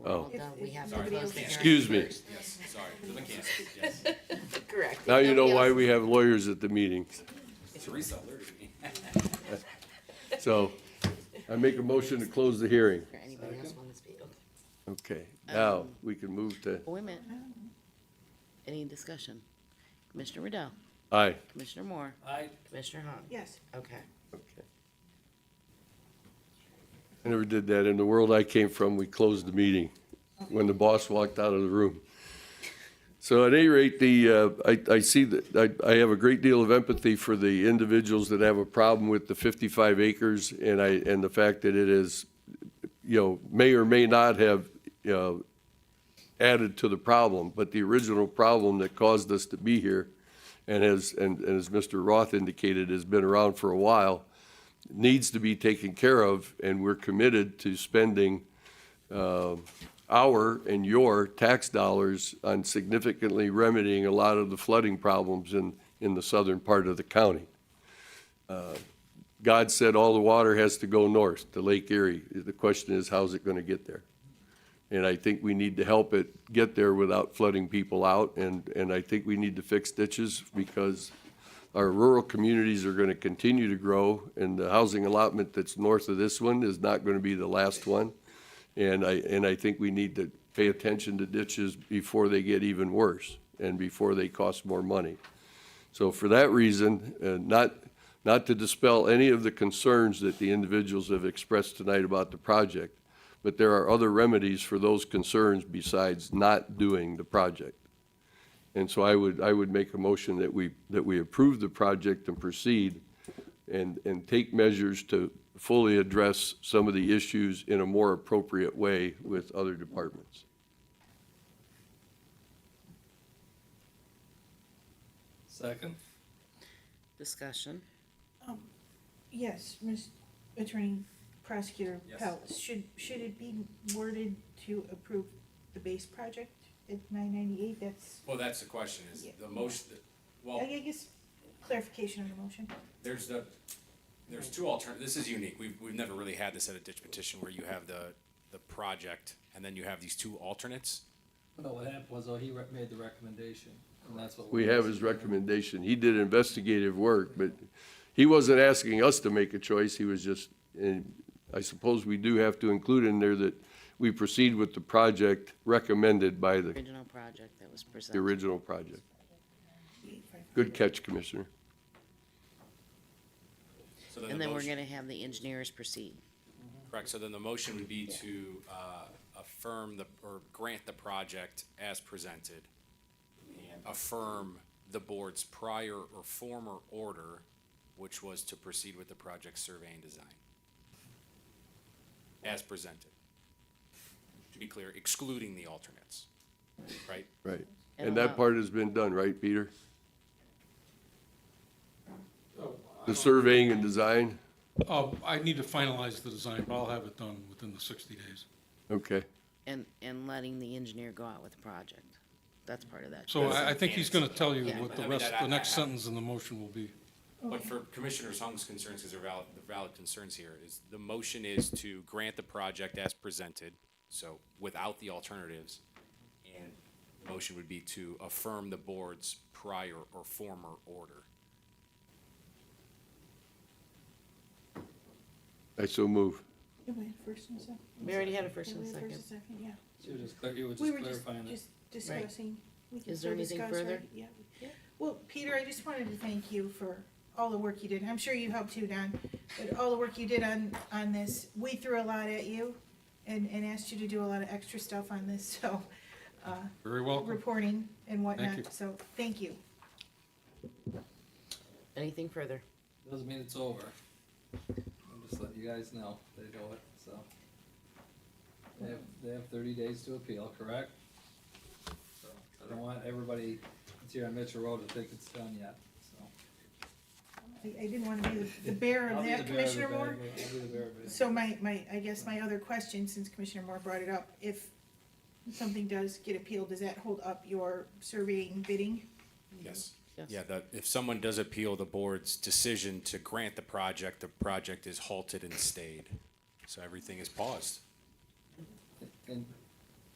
Oh. Although we have to Sorry, close the hearing Excuse me. first. Yes, sorry, the mechanics, yes. Correct. Now you know Nobody why else- we have lawyers at the meeting. Teresa alerted me. So I make a motion to close the hearing. Or Anybody else want to speak? Okay. Okay, now we can move to, Wait a minute. Any discussion? Commissioner Riddell, aye. Commissioner Moore, I, Commissioner Hahn. Yes. Okay. Okay. I never did that. In the world I came from, we closed the meeting when the boss walked out of the room. So at any rate, the, uh, I, I see that, I, I have a great deal of empathy for the individuals that have a problem with the 55 acres and I, and the fact that it is, you know, may or may not have, you know, added to the problem, but the original problem that caused us to be here and as, and, and as Mr. Roth indicated, has been around for a while, needs to be taken care of, and we're committed to spending uh, our and your tax dollars on significantly remedying a lot of the flooding problems in, in the southern part of the county. Uh, God said all the water has to go north to Lake Erie. The question is, how's it going to get there? And I think we need to help it get there without flooding people out. And, and I think we need to fix ditches because our rural communities are going to continue to grow. And the housing allotment that's north of this one is not going to be the last one. And I, and I think we need to pay attention to ditches before they get even worse and before they cost more money. So for that reason, uh, not, not to dispel any of the concerns that the individuals have expressed tonight about the project, but there are other remedies for those concerns besides not doing the project. And so I would, I would make a motion that we, that we approve the project and proceed and, and take measures to fully address some of the issues in a more appropriate way with other departments. Second. Discussion. Um, Yes, Ms. Attorney Prosecutor Yes. Pelz, should, should it be worded to approve the base project at nine ninety-eight? That's, Well, that's the question, is Yeah. the motion, that- well, I guess clarification on the motion. there's the, there's two altern, this is unique. We've, we've never really had this at a ditch petition where you have the, the project and then you have these two alternates. No, what happened was, though, he re- made the recommendation, and that's what. We have his recommendation. He did investigative work, but he wasn't asking us to make a choice. He was just, and I suppose we do have to include in there that we proceed with the project recommended by the, Original project that was presented. the original project. Good catch, Commissioner. So then And the then we're motion- gonna have the engineers proceed. Correct, so then the motion would be to uh, affirm the, or grant the project as presented. and Affirm the board's prior or former order, which was to proceed with the project survey and design. As presented. To be clear, excluding the alternates, right? Right. And And that allow- part has been done, right, Peter? The surveying and design? Oh, I need to finalize the design, but I'll have it done within the sixty days. Okay. And, and letting the engineer go out with the project. That's part of that. So I, I think he's gonna tell you Yeah. what the I mean, rest, that- the next I- I- sentence in the motion will be. But for Commissioner Hung's concerns, because they're valid, they're valid concerns here, is the motion is to grant the project as presented, so without the alternatives. And the motion would be to affirm the board's prior or former order. I so move. Did we have first and second? We already had a first Did and we have second. first and second, yeah. You were just clar- you were just We were just, clarifying it. just discussing. We can Is there still anything discuss, further? right? Yeah. Well, Peter, I just wanted to thank you for all the work you did. I'm sure you helped too, Don, but all the work you did on, on this. We threw a lot at you and, and asked you to do a lot of extra stuff on this, so, uh, Very welcome. reporting and you. whatnot, so, thank you. Anything further? Doesn't mean it's over. I'm just letting you guys know, they know it, so. They have, they have thirty days to appeal, correct? So, I don't want everybody that's here on Mitchell Road to think it's done yet, so. I, I didn't wanna be the- the bearer I'll of be that, the bearer of the Commissioner bad- Moore. I'll be the bearer of So my, my, I guess my other question, since Commissioner Moore brought it up, if something does get appealed, does that hold up your surveying bidding? Yes. Yes. Yeah, the, if someone does appeal the board's decision to grant the project, the project is halted and stayed. So everything is paused. it. And